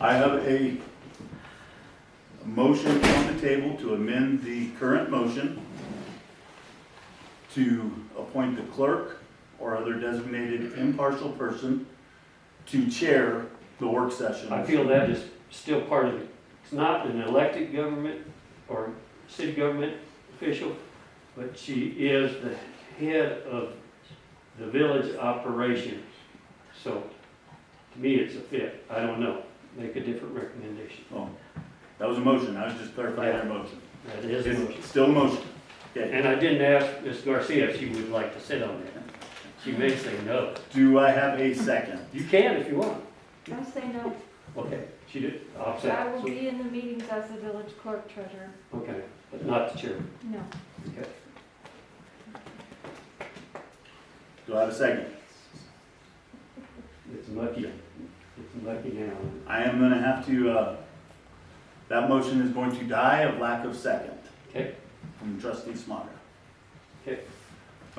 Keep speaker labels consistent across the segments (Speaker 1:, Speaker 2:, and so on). Speaker 1: I have a motion on the table to amend the current motion to appoint the clerk or other designated impartial person to chair the work session.
Speaker 2: I feel that is still part of it. It's not an elected government or city government official, but she is the head of the village operations. So to me, it's a fit. I don't know. Make a different recommendation.
Speaker 1: Oh, That was a motion, I was just clarifying your motion.
Speaker 2: That is a motion.
Speaker 1: It's still a motion. Okay,
Speaker 2: And I didn't ask Ms. Garcia if she would like to sit on that. She may say no.
Speaker 1: do I have a second?
Speaker 2: You can if you want.
Speaker 3: I say no,
Speaker 2: Okay, she did. I'll say.
Speaker 3: I will be in the meetings as the village clerk treasurer,
Speaker 2: Okay, but not the chairman.
Speaker 3: no.
Speaker 2: Okay.
Speaker 1: Do I have a second?
Speaker 2: It's lucky, it's lucky now.
Speaker 1: I am gonna have to, uh, that motion is going to die of lack of second.
Speaker 2: Okay.
Speaker 1: From trustee Smaga.
Speaker 2: Okay.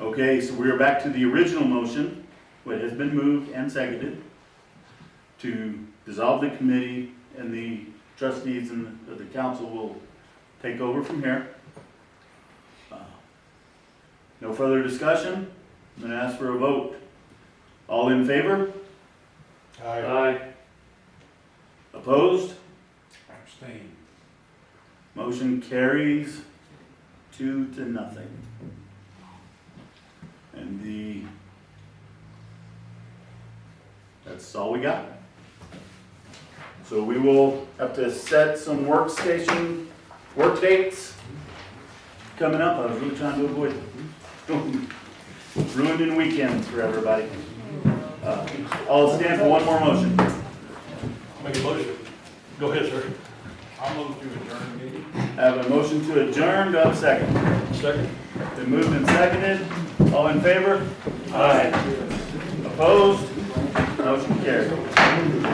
Speaker 1: Okay, so we are back to the original motion, what has been moved and seconded to dissolve the committee and the trustees and the- the council will take over from here. Uh, No further discussion, I'm gonna ask for a vote. All in favor?
Speaker 4: I
Speaker 2: Aye,
Speaker 1: Opposed?
Speaker 4: abstain.
Speaker 1: Motion carries two to nothing. And the, that's all we got. So we will have to set some workstation, work dates coming up. I was really trying to avoid ruining weekends for everybody. Uh, I'll stand for one more motion.
Speaker 4: Make a motion. Go ahead, sir. I'll move to adjourn the meeting.
Speaker 1: I have a motion to adjourn. Do I have a second?
Speaker 4: Second.
Speaker 1: Been moved and seconded. All in favor? Aye. Opposed? Motion carried.